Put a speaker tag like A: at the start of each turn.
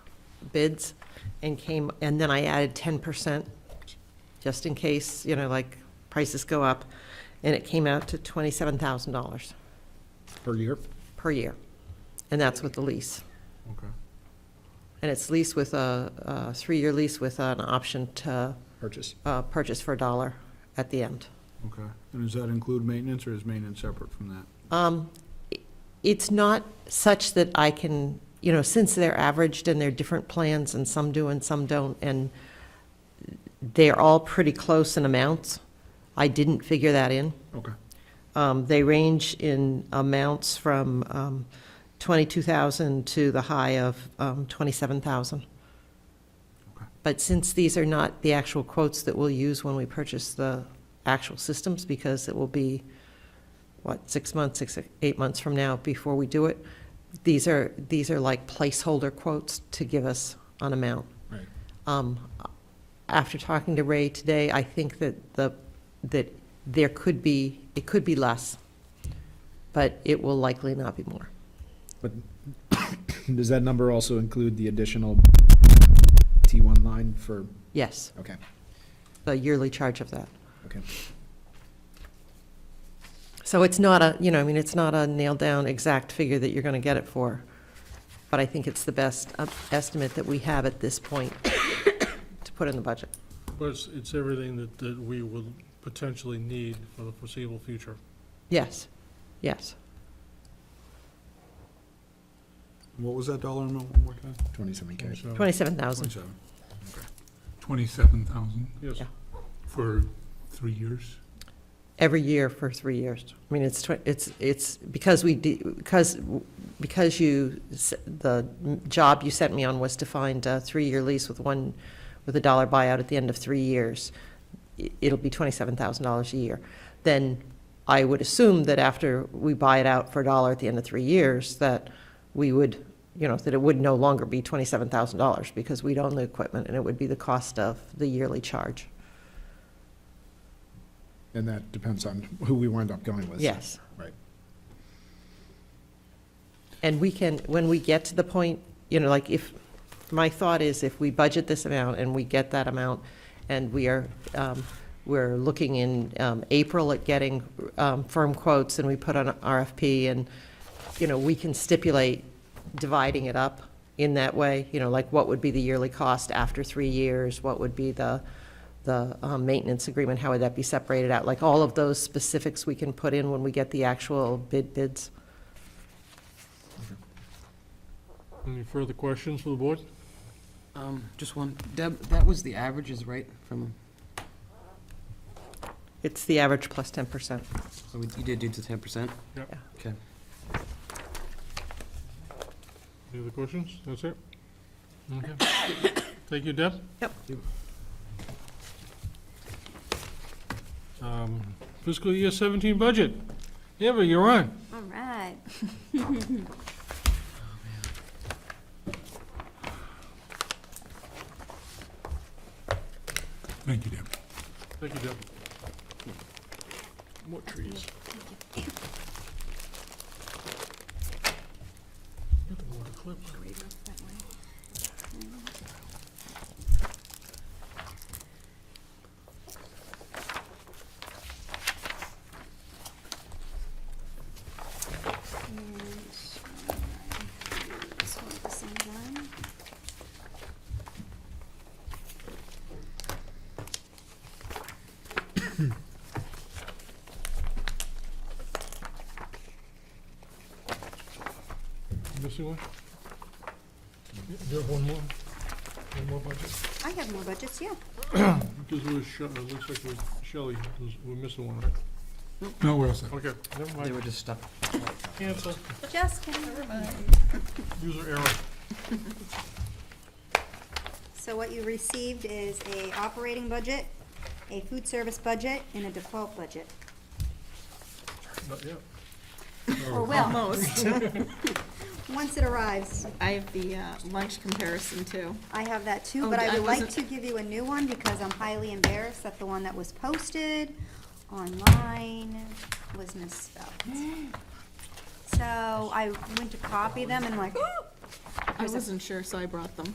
A: bids and came, and then I added ten percent just in case, you know, like prices go up. And it came out to twenty-seven thousand dollars
B: per year.
A: per year. And that's with the lease.
C: Okay.
A: And it's leased with a, a three-year lease with an option to,
B: Purchase.
A: uh, purchase for a dollar at the end.
C: Okay, and does that include maintenance, or is maintenance separate from that?
A: Um, i- It's not such that I can, you know, since they're averaged and they're different plans and some do and some don't, and they're all pretty close in amounts, I didn't figure that in.
C: Okay.
A: Um, They range in amounts from um, 22,000 to the high of um, 27,000.
C: Okay.
A: But since these are not the actual quotes that we'll use when we purchase the actual systems, because it will be, what, six months, six, eight months from now before we do it, these are, these are like placeholder quotes to give us an amount.
B: Right.
A: Um, After talking to Ray today, I think that the, that there could be, it could be less, but it will likely not be more.
B: Does that number also include the additional T1 line for,
A: Yes,
B: okay,
A: the yearly charge of that.
B: okay.
A: So it's not a, you know, I mean, it's not a nailed-down exact figure that you're going to get it for, but I think it's the best uh, estimate that we have at this point to put in the budget.
D: Of course, it's everything that, that we will potentially need for the foreseeable future.
A: Yes, yes.
C: What was that dollar amount one more time?
B: 27K.
D: So,
A: 27,000,
C: Twenty-seven.
E: Twenty-seven thousand
D: Yes,
A: Yeah.
E: for three years?
A: every year for three years. I mean, it's, twen- it's, it's, because we, de- because, because you, s- the job you sent me on was to find a three-year lease with one, with a dollar buyout at the end of three years, i- it'll be twenty-seven thousand dollars a year. Then I would assume that after we buy it out for a dollar at the end of three years, that we would, you know, that it would no longer be twenty-seven thousand dollars because we'd own the equipment and it would be the cost of the yearly charge.
B: And that depends on who we wind up going with.
A: Yes.
B: Right.
A: And we can, when we get to the point, you know, like if, my thought is if we budget this amount and we get that amount, and we are, um, we're looking in um, April at getting um, firm quotes, and we put on RFP, and, you know, we can stipulate dividing it up in that way, you know, like what would be the yearly cost after three years, what would be the, the um, maintenance agreement, how would that be separated out? Like, all of those specifics we can put in when we get the actual bid bids.
D: any further questions for the board?
F: Um, just one, Deb, that was the averages, right, from,
A: It's the average plus ten percent.
F: so we- you did do the ten percent?
D: Yep.
A: Yeah.
F: Okay.
D: Any other questions? That's it? Okay. Thank you, Deb.
A: Yep.
D: Um, Fiscal year 17 budget. Eva, you're on.
G: All right.
E: Thank you, Deb.
D: Thank you, Deb. More trees. You're the one to clip. Missing one? You- You have one more? One more budget?
G: I have more budgets, yeah.
D: Because we're, sh- it looks like we're, Shelley, is- we're missing one, right?
E: No, where else?
D: Okay, never
F: They
D: mind.
F: were just stuck.
D: Cancel.
G: Just kidding.
D: User error.
G: So what you received is a operating budget, a food service budget, and a default budget.
D: Not yet.
G: Or will,
H: Almost.
G: once it arrives.
H: I have the uh, lunch comparison too.
G: I have that too,
H: Oh,
G: but I
H: I
G: would like
H: wasn't-
G: to give you a new one because I'm highly embarrassed that the one that was posted online was misspelled. So I went to copy them and like,
H: I wasn't sure, so I brought them.